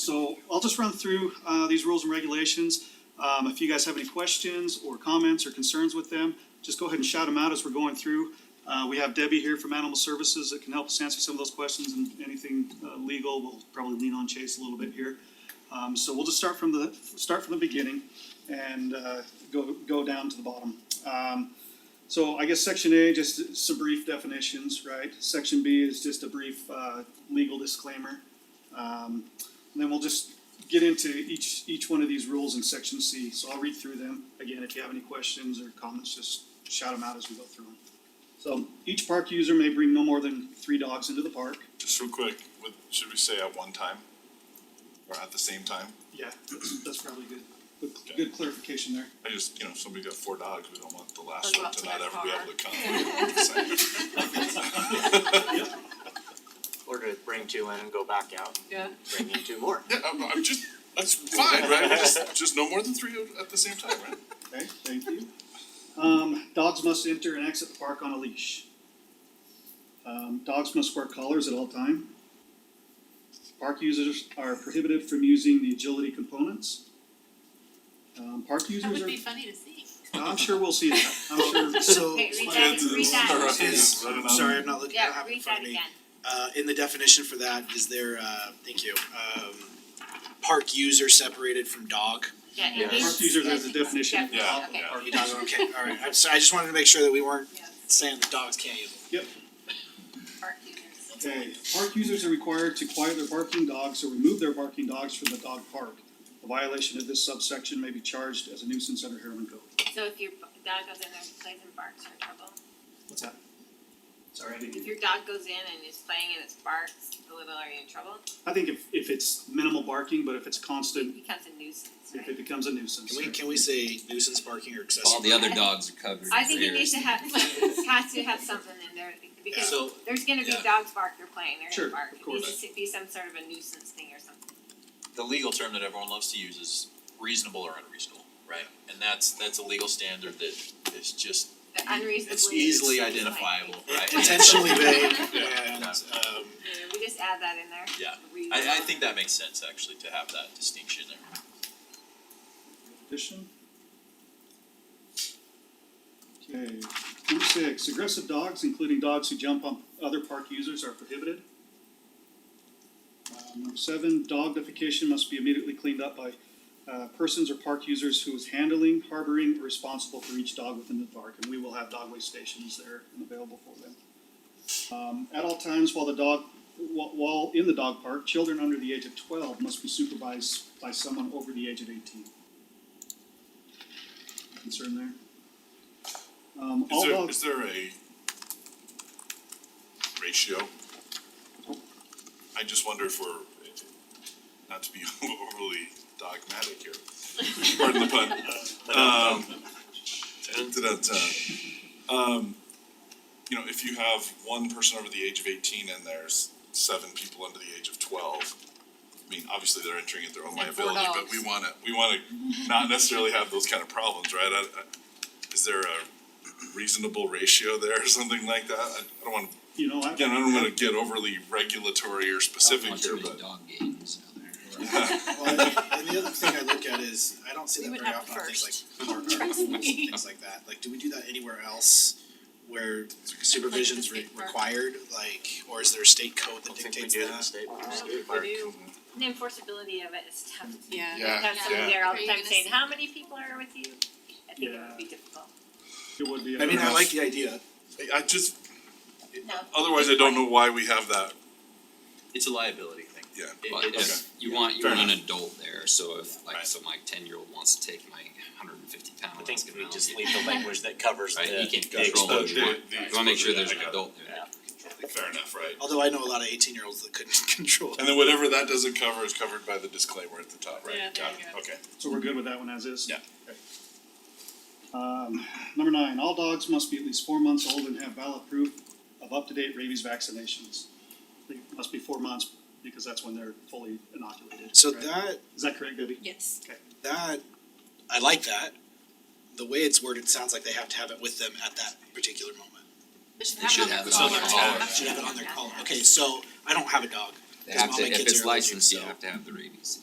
So I'll just run through uh, these rules and regulations. Um, If you guys have any questions or comments or concerns with them, just go ahead and shout them out as we're going through. Uh, We have Debbie here from Animal Services that can help us answer some of those questions and anything uh, legal, we'll probably lean on Chase a little bit here. Um, So we'll just start from the, start from the beginning and uh, go, go down to the bottom. Um, So I guess section A, just some brief definitions, right? Section B is just a brief uh, legal disclaimer. Um, and then we'll just get into each, each one of these rules in section C, so I'll read through them. Again, if you have any questions or comments, just shout them out as we go through them. So each park user may bring no more than three dogs into the park. Just real quick, what, should we say at one time? Or at the same time? Yeah, that's, that's probably good, good, good clarification there. I just, you know, if somebody got four dogs, we don't want the last Or one go to not out to ever their be able to come. Or to bring two in and go back out Yeah, and bring in two more. Yeah, I'm, I'm just, that's fine, right? Just, just no more than three at the same time, right? Okay, thank you. Um, dogs must enter and exit the park on a leash. Um, dogs must wear collars at all time. Park users are prohibited from using the agility components. Um, park that users would are, be funny to see. I'm sure we'll see that, I'm sure. So, Okay, read my- that, read that. is- Right. I'm sorry, I'm not looking, I don't Yeah, have it in read front that of me. again. Uh, in the definition for that, is there, uh, thank you, um, park user separated from dog? Yeah, Yeah. it needs. Park users as a it- definition of yeah, dog, okay. yeah. Or dog, okay, alright, I'm sorry, I just wanted to make sure that we weren't saying that dogs can't use them. Park users. Okay, park users are required to quiet their barking dogs or remove their barking dogs from the dog park. A violation of this subsection may be charged as a nuisance under Harriman Code. So if your b- dog goes in there and plays and barks, you're in trouble. What's that? Sorry, I didn't. If your dog goes in and is playing and it's barks, a little, are you in trouble? I think if, if it's minimal barking, but if it's It constant, becomes a nuisance, if it right? becomes a nuisance. Can we, can we say nuisance barking or excessive? All the other dogs are covered. I think it Here. needs to have, has to have something in there, because So, there's gonna be Yeah. dogs bark, they're playing, Sure, they're gonna bark. of course. It needs to be some sort of a nuisance thing or something. the legal term that everyone loves to use is reasonable or unreasonable, right? And that's that's a legal standard that is just The unreasonably. it's easily identifiable, right? And so- intentionally vague Yeah. and, um, Yeah, we just add that in there. Yeah. I I Reasonable. think that makes sense actually to have that distinction there. Addition? Okay, number six, aggressive dogs, including dogs who jump on other park users are prohibited. Um, Number seven, dog defecation must be immediately cleaned up by, uh, persons or park users who is handling, harboring, or responsible for each dog within the park, and we will have dog waste stations there and available for them. Um, at all times while the dog, wh- while in the dog park, children under the age of twelve must be supervised by someone over the age of eighteen concern there. Um, Is all there, dogs, is there a ratio? I just wonder if we're, not to be overly dogmatic here, pardon the pun. Um, da-da-da. Um, you know, if you have one person over the age of eighteen and there's seven people under the age of twelve, I mean, obviously they're entering at their own And four liability, but dogs. we wanna, we wanna not necessarily have those kind of problems, right? I, I, is there a reasonable ratio there or something like that? I I don't wanna, you know, I, again, I don't wanna get overly regulatory or specific Not here, too many but. dog games out there. well, and the other thing I look at is, I don't see We that would very have often on things first. like park articles and things like that, like, do we do that anywhere else? Where supervision's re- state park. required, like, or is there a state code I that don't think we dictates do in the that? state. And the enforceability of it is tough. Yeah. Yeah. Have somebody there all Are the you time gonna saying, s- how many people are with you? I think it Yeah. would be difficult. it would be. I mean, I like the idea, I- I just, No. otherwise I don't know why we have that, It's a liability thing. yeah. It- But it's- if you want, you Fair want an adult there, so if like, Right. so my ten year old wants to take my hundred and fifty pound I think Alaska we just Mountain, leave the language that covers the right, you can the control what you exposure. want. The- the You wanna make sure exposure, there's yeah, an I got it. adult there. Yeah. Fair enough, right? although I know a lot of eighteen year olds that couldn't control. And then whatever that doesn't cover is covered by the disclaimer at the top, right? Yeah, there Got you it. go. Okay. So we're good with that one as is? Yeah. Okay. Um, number nine, all dogs must be at least four months old and have valid proof of up-to-date rabies vaccinations. They must be four months because that's when they're fully inoculated. So right? that Is that correct, Debbie? Yes. that I like that. The way it's worded sounds like they have to have it with them at that particular moment. They should They should have have it it on on their their collar. collar. Should have it on their collar. Okay, so I don't have a dog. They have all to, my if kids it's are allergic, licensed, you so- have to have the rabies.